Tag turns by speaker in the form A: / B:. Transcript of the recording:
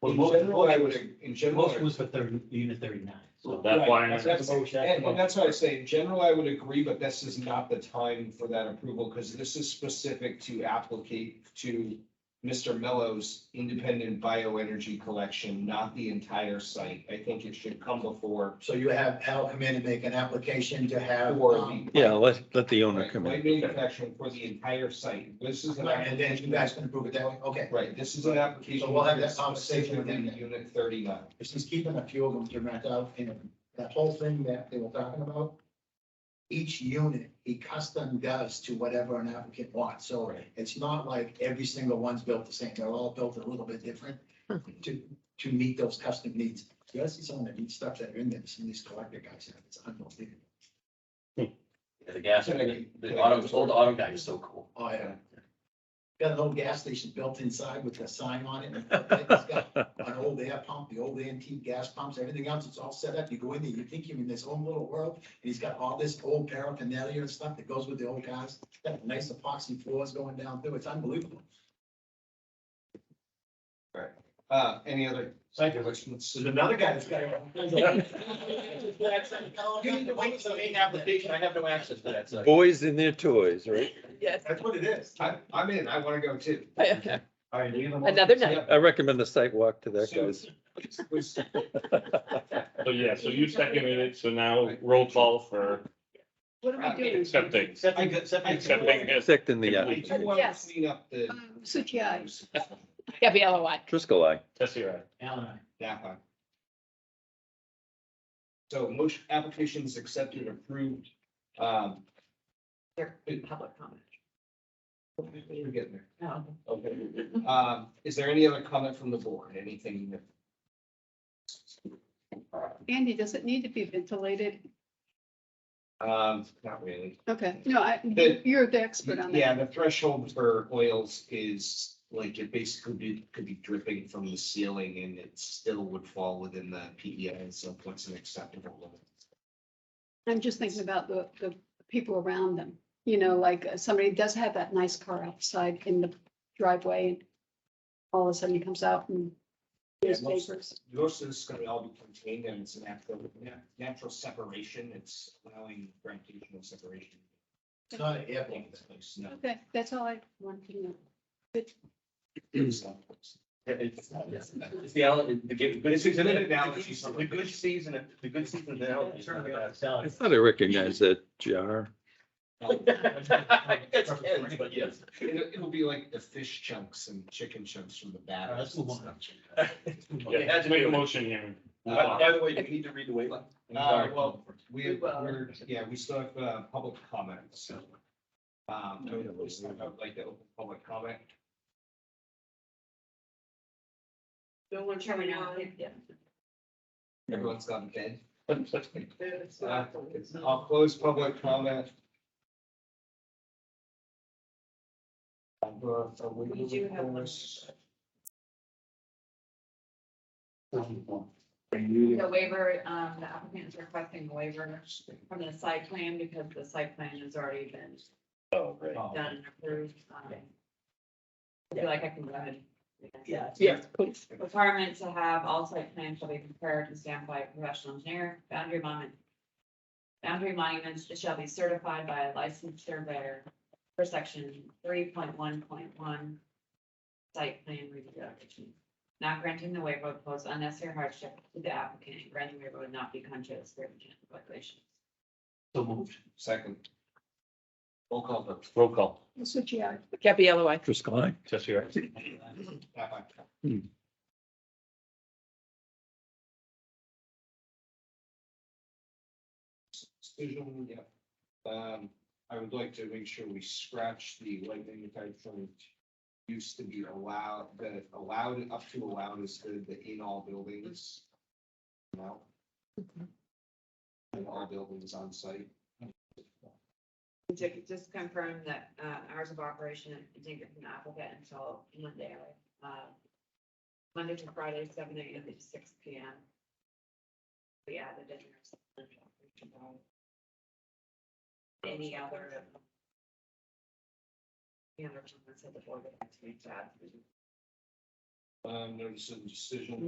A: Well,
B: In
A: most,
B: general, I
A: most was-
B: would, in general.
A: most was for thirty, unit thirty-nine, so.
C: That
B: Right,
C: line
B: that's-
C: item.
B: that's- And, and that's what I say, in general, I would agree, but this is not the time for that approval, because this is specific to applicate to Mr. Mello's independent bioenergy collection, not the entire site. I think it should come before.
D: So you have Al come in and make an application to have.
B: for
D: um,
B: the-
E: Yeah, let, let the owner
B: Right,
E: come in.
B: light manufacturing for the entire site. This is an
D: And then you
B: application,
D: guys can approve it that way, okay.
B: right, this is an application.
D: So we'll have that
B: that's
D: conversation with him.
B: specifically Unit thirty-nine.
D: If he's keeping a few of them to rent out, and that whole thing that they were talking about, each unit, he custom does to whatever an applicant wants, so
B: Right.
D: it's not like every single one's built the same, they're all built a little bit different to, to meet those custom needs. You gotta see some of the neat stuff that are in there, some of these collector guys have, it's unbelievable.
C: The gas, the the auto, old auto guy is so cool.
D: Oh, yeah. Got an old gas station built inside with a sign on it. It's got An old air pump, the old antique gas pumps, everything else, it's all set up. You go in there, you think you're in this own little world. And he's got all this old paraphernalia and stuff that goes with the old cars. Got nice epoxy floors going down through. It's unbelievable.
B: Uh, any other
F: Thank you.
B: questions?
F: There's another guy that's got. I have no access to that site.
E: Boys and their toys, right?
G: Yes.
F: That's what it is.
B: I, I'm in, I want to go too.
F: All right, you have a motion?
G: Another night.
B: Yeah.
E: I recommend the site walk to that
B: So-
E: guy's.
B: was-
C: So yeah, so you seconded it, so now roll call for
G: What are we doing?
C: accepting,
F: Accepting, accepting.
C: accepting his.
E: Accepting the,
B: I
E: uh,
B: do want to
G: Yes.
B: clean up
H: uh,
B: the.
G: Suchi, aye. Debbie Elroy.
E: Driscoll eye.
C: Tessie, right?
A: Alan, I-
B: That one. So motion, applications accepted, approved. Um,
G: Public comment.
B: we're getting there.
G: No.
B: Okay. Um, is there any other comment from the board? Anything? that-
H: Andy, does it need to be ventilated?
B: Um, not really.
H: Okay, no, I,
B: The-
H: you're the expert on
B: Yeah,
H: that.
B: the threshold for oils is like it basically be- could be dripping from the ceiling and it still would fall within the PEI, so what's an acceptable limit?
H: I'm just thinking about the, the people around them. You know, like uh, somebody does have that nice car outside in the driveway and all of a sudden he comes out and there's
B: Yeah, most-
H: papers.
B: Most of this is gonna all be contained and it's a natural, na- natural separation. It's allowing gravitational separation.
D: It's not an air
B: in
D: pump.
B: this place, no.
H: Okay, that's all I wanted to know.
B: It's not-
F: It's it's the, al- the good, good
B: It's an
F: season.
B: analogy.
F: The good season, the good season, the analogy is not bad.
E: I thought I recognized that jar.
F: It's kids, but yes.
B: It'll, it'll be like the fish chunks and chicken chunks from the
A: all right, let's
B: batters.
A: move
B: and
A: on.
B: stuff.
A: Let's move on.
F: It had
C: Yeah,
F: to
C: make
F: be-
C: a motion here.
F: By by the way, you need to read the waiver.
B: Uh, well, We,
G: We will.
B: we're, yeah, we still have, uh, public comment, so. Um, I would just- I would like to open public comment.
G: Don't want
I: Turn it on.
B: Everyone's gone to bed. Uh,
G: It's
B: I'll close public comment. I'm gonna- so we-
I: We do have one. The waiver, um, the applicant is requesting a waiver from the site plan because the site plan has already been
C: Oh, right.
B: Oh,
I: done and approved. Um, I feel like I can go ahead.
G: Yeah, yeah, please.
I: Requirement to have all site plans shall be prepared and stamped by a professional engineer, boundary monument. Boundary monuments shall be certified by a licensed surveyor per section three point one point one. Site plan review application. Not granting the waiver would pose unnecessary hardship to the applicant, and granting waiver would not be contrary to certain regulations.
A: So moved.
B: Second. Roll call vote.
C: Roll call.
H: Suchi, aye.
G: Debbie Elroy.
E: Driscoll eye.
C: Tessie, right?
B: Tap on. Decision, yeah. Um, I would like to make sure we scratch the light manufacturing used to be allowed, that allowed, up to allowed is good, the in all buildings. Now. In all buildings on site.
I: To just confirm that uh, hours of operation, I didn't get from the applicant until Monday. uh, Monday to Friday, seven AM to six PM. We added in. there some- Any other. Any other comments at the board? would like to make to add?
B: um, notice of decision